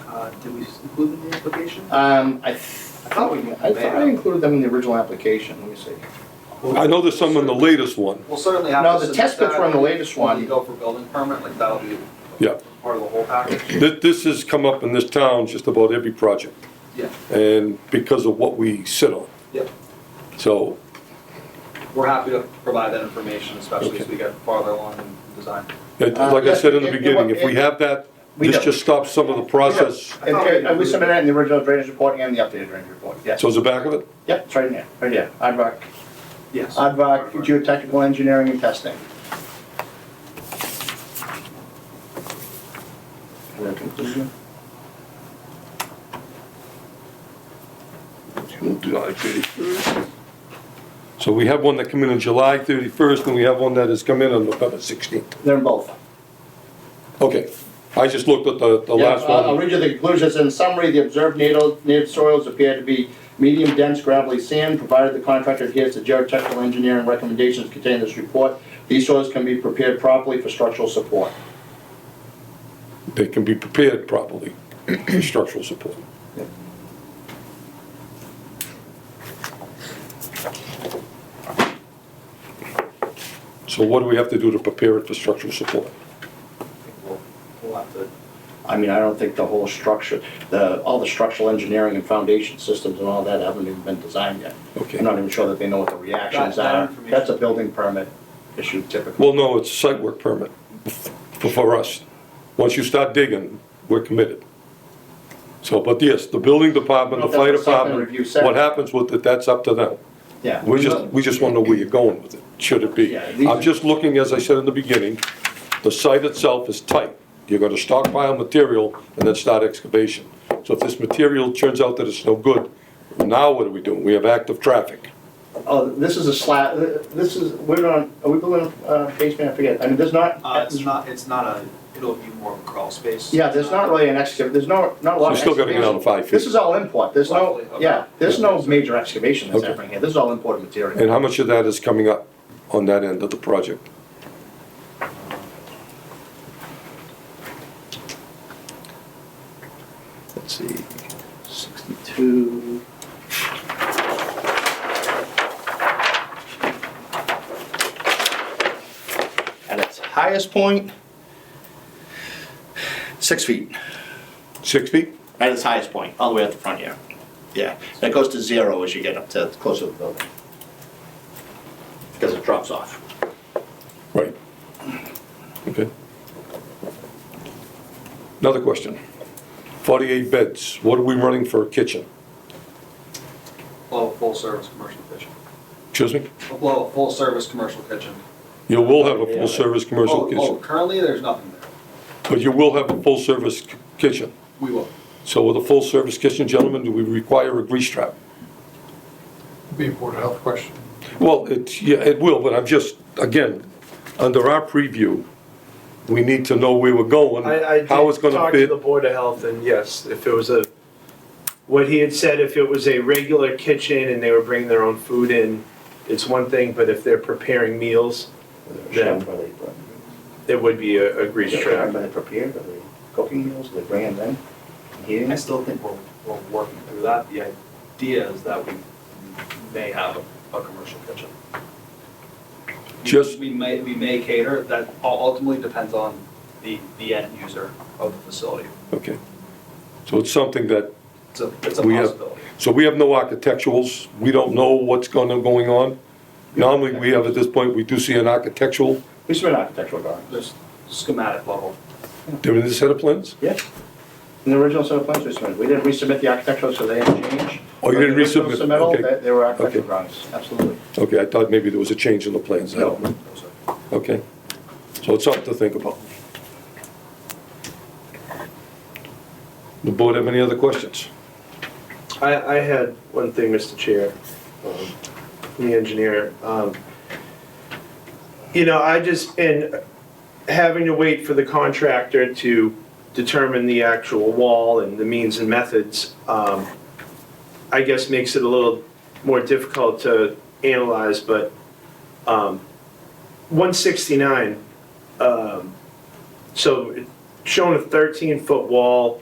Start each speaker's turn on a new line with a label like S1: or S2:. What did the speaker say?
S1: that? Uh, Did we include them in the application?
S2: Um, I, th- I thought we, I thought I included them in the original application, let me see.
S3: I know there's some in the latest one,
S1: We'll certainly have.
S2: No,
S1: to
S2: the
S1: submit
S2: test pits
S1: that
S2: were in the latest
S1: When you
S2: one.
S1: go for building permit, like that'll be
S3: yeah.
S1: part of the whole package.
S3: This, this has come up in this town just about every project,
S1: Yeah,
S3: and because of what we sit on.
S1: Yep.
S3: So,
S1: we're happy to provide that information, especially as we get farther along in design.
S3: it-
S2: Uh,
S3: like I said in the
S2: yes, it- it-
S3: beginning, if we have that,
S2: We
S3: this
S2: don't.
S3: just stops some of the process.
S2: And, and we submitted it in the original drainage report and the updated drainage report, yes.
S3: So is the back of it?
S2: Yep, it's right in there, right here, Aardvark,
S1: Yes.
S2: Aardvark Geotechnical Engineering and Testing. Is there a conclusion?
S3: July 31st. So we have one that come in on July 31st, and we have one that has come in on November 16th.
S2: They're in both.
S3: Okay, I just looked at the, the
S2: Yeah, uh,
S3: last
S2: I'll- I'll
S3: one.
S2: read you the conclusions. In summary, the observed native, native soils appear to be medium dense gravelly sand, provided the contractor adheres to geotechnical engineering recommendations contained in this report. These soils can be prepared properly for structural support.
S3: They can be prepared properly for structural support. So what do we have to do to prepare it for structural support?
S1: We'll- We'll have to,
S2: I mean, I don't think the whole structure, the, all the structural engineering and foundation systems and all that haven't even been designed yet.
S3: Okay.
S2: I'm not even sure that they know what the
S1: That-
S2: reactions
S1: that
S2: are.
S1: information-
S2: That's a building permit issue typically.
S3: Well, no, it's a site work permit for, for us. Once you start digging, we're committed. So, but yes, the building department, the fire
S2: That's what site plan
S3: department,
S2: review said.
S3: what happens with it, that's up to them.
S2: Yeah.
S3: We just, we just wanna know where you're going with it, should it be.
S2: Yeah, these-
S3: I'm just looking, as I said in the beginning, the site itself is tight. You're gonna stockpile material and then start excavation. So if this material turns out that it's no good, now what are we doing? We have active traffic.
S2: Oh, this is a slab, this is, we're on, are we building a uh, basement? I forget. I mean, there's not.
S1: uh, it's not, it's not a, it'll be more of a crawl space.
S2: Yeah, there's not really an excavation, there's no, not a lot of
S3: You still gotta get
S2: excavation.
S3: out of five feet.
S2: This is all import, there's no,
S1: Roughly, okay.
S2: yeah, there's no major excavation that's
S3: Okay.
S2: happening here, this is all imported material.
S3: And how much of that is coming up on that end of the project?
S2: Let's see, sixty-two. At its highest point, six feet,
S3: Six feet?
S2: at its highest point, all the way up the front here. Yeah, that goes to zero as you get up to closer to the building. Because it drops off.
S3: Right. Okay. Another question. Forty-eight beds, what are we running for a kitchen?
S1: Blow a full-service commercial kitchen.
S3: Excuse me?
S1: We'll Blow a full-service commercial kitchen.
S3: You will have a full-service commercial
S1: Oh, Oh,
S3: kitchen,
S1: currently, there's nothing there.
S3: but you will have a full-service k- kitchen.
S1: We will.
S3: So with a full-service kitchen, gentlemen, do we require a grease trap?
S4: Be a Board of Health question.
S3: Well, it, yeah, it will, but I'm just, again, under our preview, we need to know where we're going,
S5: I, I did
S3: how it's gonna
S5: talk to
S3: fit.
S5: the Board of Health, and yes, if it was a, what he had said, if it was a regular kitchen and they were bringing their own food in, it's one thing, but if they're preparing meals, Yeah. there would be a, a grease trap.
S2: they prepared, are they cooking meals, are they bringing them here?
S1: I still think we're, we're working through that. The idea is that we may have a, a commercial kitchen. We-
S3: Just-
S1: We may, we may cater, that ul- ultimately depends on the, the end user of the facility.
S3: Okay. So it's something that
S1: It's a, it's a
S3: We have-
S1: possibility.
S3: So we have no architecturals, we don't know what's gonna, going on. Normally, we have, at this point, we do see an architectural,
S2: We submit architectural drawings.
S1: There's schematic level.
S3: they're in the set of plans?
S2: Yeah. In the original set of plans we submitted, we didn't resubmit the architectural, so they didn't change.
S3: Oh, you
S2: But
S3: didn't
S2: the original
S3: resubmit,
S2: submittal,
S3: okay.
S2: they- They were architectural
S3: Okay.
S2: drawings, absolutely.
S3: Okay, I thought maybe there was a change in the plans.
S2: No.
S3: Okay, so it's something to think about. The board have any other questions?
S5: I, I had one thing, Mr. Chair, um, the engineer. um, You know, I just, and having to wait for the contractor to determine the actual wall and the means and methods, um, I guess makes it a little more difficult to analyze, but um, 169, um, so showing a 13-foot wall